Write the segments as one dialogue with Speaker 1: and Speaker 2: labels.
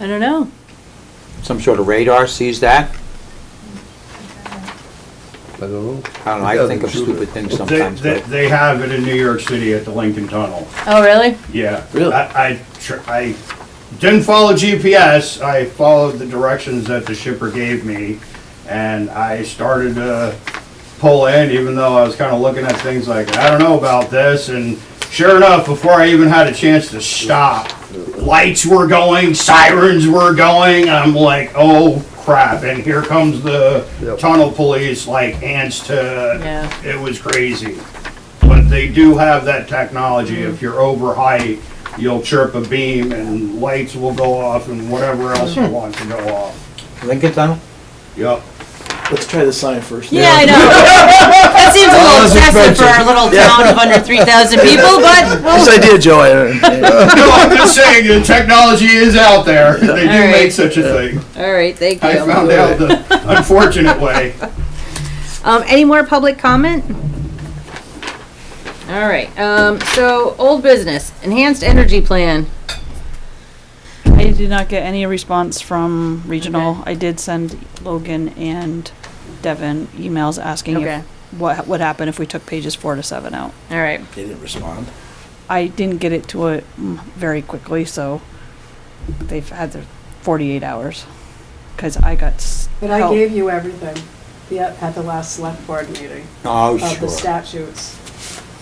Speaker 1: I don't know.
Speaker 2: Some sort of radar sees that?
Speaker 3: I don't know.
Speaker 2: I don't know, I think of stupid things
Speaker 4: They,
Speaker 2: sometimes,
Speaker 4: they,
Speaker 2: but
Speaker 4: they have it in New York City at the Lincoln Tunnel,
Speaker 1: Oh, really?
Speaker 4: yeah.
Speaker 3: Really?
Speaker 4: I, I, tr- I didn't follow GPS, I followed the directions that the shipper gave me, and I started to pull in, even though I was kinda looking at things like, I don't know about this, and sure enough, before I even had a chance to stop, lights were going, sirens were going, I'm like, oh crap, and here comes the
Speaker 3: Yep.
Speaker 4: tunnel police like ants to
Speaker 1: Yeah.
Speaker 4: it was crazy. But they do have that technology. If you're over height, you'll chirp a beam and lights will go off and whatever else you want to go off.
Speaker 2: Lincoln Tunnel?
Speaker 4: Yep.
Speaker 5: Let's try the sign first.
Speaker 1: Yeah, I know. That seems a little excessive for our little town of under 3,000 people, but
Speaker 5: This idea, Joe, I- uh,
Speaker 4: No, I'm just saying, the technology is out there. They do
Speaker 1: All right.
Speaker 4: make such a thing.
Speaker 1: all right, thank
Speaker 4: I
Speaker 1: you.
Speaker 4: found out the unfortunate way.
Speaker 1: Um, any more public comment? All right. Um, so old business, enhanced energy plan.
Speaker 6: I did not get any response from regional. I did send Logan and Devin emails asking
Speaker 1: Okay.
Speaker 6: if what would happen if we took pages four to seven out.
Speaker 1: All right.
Speaker 5: They didn't respond.
Speaker 6: I didn't get it to it mm, very quickly, so they've had their 48 hours because I got s-
Speaker 7: But I
Speaker 6: help.
Speaker 7: gave you everything the- at the last select board meeting
Speaker 2: Oh,
Speaker 7: of the
Speaker 2: sure.
Speaker 7: statutes.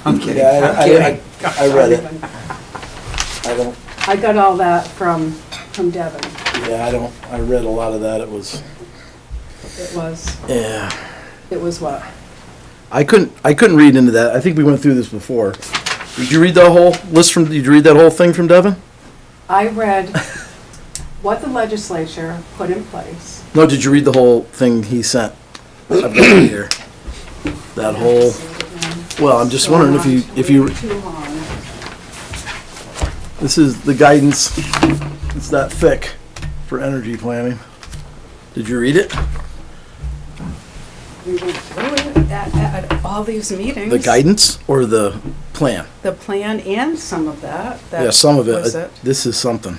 Speaker 2: I'm kidding,
Speaker 5: Yeah,
Speaker 2: I'm
Speaker 5: I, I,
Speaker 2: kidding.
Speaker 5: I- I read it. I don't,
Speaker 7: I got all that from, from Devin.
Speaker 5: yeah, I don't, I read a lot of that. It was,
Speaker 7: It was,
Speaker 5: yeah.
Speaker 7: it was what?
Speaker 5: I couldn't, I couldn't read into that. I think we went through this before. Did you read the whole list from, did you read that whole thing from Devin?
Speaker 7: I read what the legislature put in place.
Speaker 5: No, did you read the whole thing he sent? I've got it here. That whole, well, I'm just wondering if you, if you,
Speaker 7: Too long.
Speaker 5: this is the guidance, it's that thick for energy planning. Did you read it?
Speaker 7: We went through it at, at all these meetings.
Speaker 5: The guidance or the plan?
Speaker 7: The plan and some of that. that
Speaker 5: Yeah, some of it,
Speaker 7: was
Speaker 5: uh, this is something.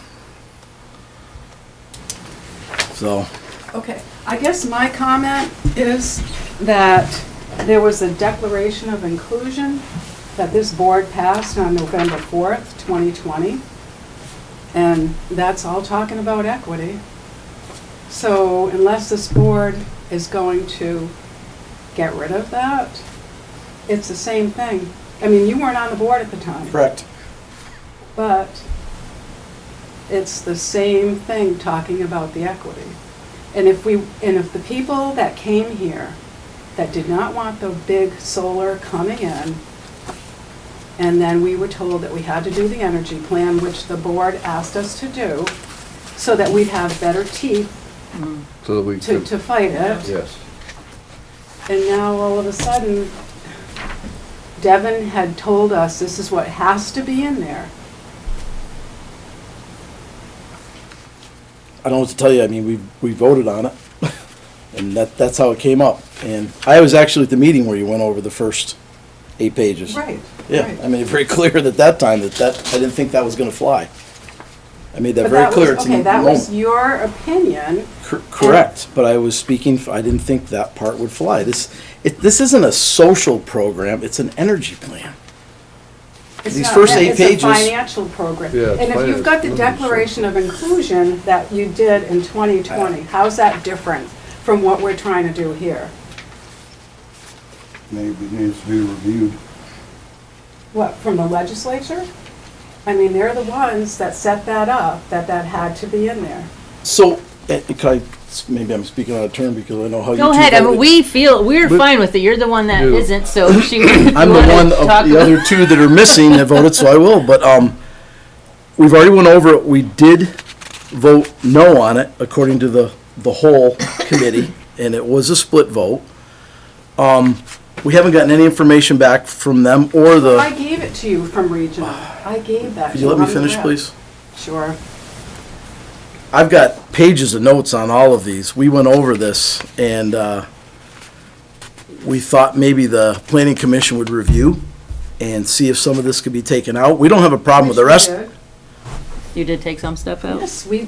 Speaker 5: So,
Speaker 7: Okay, I guess my comment is that there was a declaration of inclusion that this board passed on November 4th, 2020, and that's all talking about equity. So unless this board is going to get rid of that, it's the same thing. I mean, you weren't on the board at the time.
Speaker 5: correct.
Speaker 7: But it's the same thing talking about the equity. And if we, and if the people that came here that did not want the big solar coming in, and then we were told that we had to do the energy plan, which the board asked us to do, so that we'd have better teeth
Speaker 3: So that we
Speaker 7: to,
Speaker 3: could,
Speaker 7: to fight it.
Speaker 3: yes.
Speaker 7: And now all of a sudden, Devin had told us this is what has to be in there.
Speaker 5: I don't know what to tell you, I mean, we, we voted on it, and that, that's how it came up. And I was actually at the meeting where you went over the first eight pages. Yeah, I made it very clear at that time that that, I didn't think that was gonna fly. I made that
Speaker 7: But
Speaker 5: very
Speaker 7: that was,
Speaker 5: clear to
Speaker 7: okay,
Speaker 5: the
Speaker 7: that was
Speaker 5: moment.
Speaker 7: your opinion.
Speaker 5: Cor- Correct, but I was speaking, f- I didn't think that part would fly. This, it, this isn't a social program, it's an energy plan.
Speaker 7: It's
Speaker 5: These
Speaker 7: not
Speaker 5: first
Speaker 7: that,
Speaker 5: eight pages-
Speaker 7: It's a financial program.
Speaker 3: Yeah, it's
Speaker 7: And if
Speaker 3: finance,
Speaker 7: you've got the
Speaker 3: not social.
Speaker 7: Declaration of Inclusion that you did in 2020, how's that different from what we're trying to do here?
Speaker 4: Maybe it needs to be reviewed.
Speaker 7: What, from the legislature? I mean, they're the ones that set that up, that that had to be in there.
Speaker 5: So, eh, could I, maybe I'm speaking out of turn because I know how you two
Speaker 1: Go ahead. I mean,
Speaker 5: voted.
Speaker 1: we feel we're
Speaker 5: But-
Speaker 1: fine with it. You're the one that
Speaker 3: Yeah.
Speaker 1: not so she. you
Speaker 5: I'm the
Speaker 1: wanna
Speaker 5: one
Speaker 1: talk
Speaker 5: of the other two that are missing that voted, so I will, but, um, we've already went over it, we did vote no on it, according to the, the whole committee, and it was a split vote. Um, we haven't gotten any information back from them or
Speaker 7: I
Speaker 5: the,
Speaker 7: gave it to you from regional. I gave that to
Speaker 5: could
Speaker 7: you.
Speaker 5: Uh, you let me
Speaker 7: I'm
Speaker 5: finish,
Speaker 7: glad.
Speaker 5: please?
Speaker 7: Sure.
Speaker 5: I've got pages of notes on all of these. We went over this and uh, we thought maybe the planning commission would review and see if some of this could be taken out. We don't have a problem with the
Speaker 7: Wish we
Speaker 5: rest.
Speaker 7: did.
Speaker 1: You did take some stuff out.
Speaker 7: Yes, we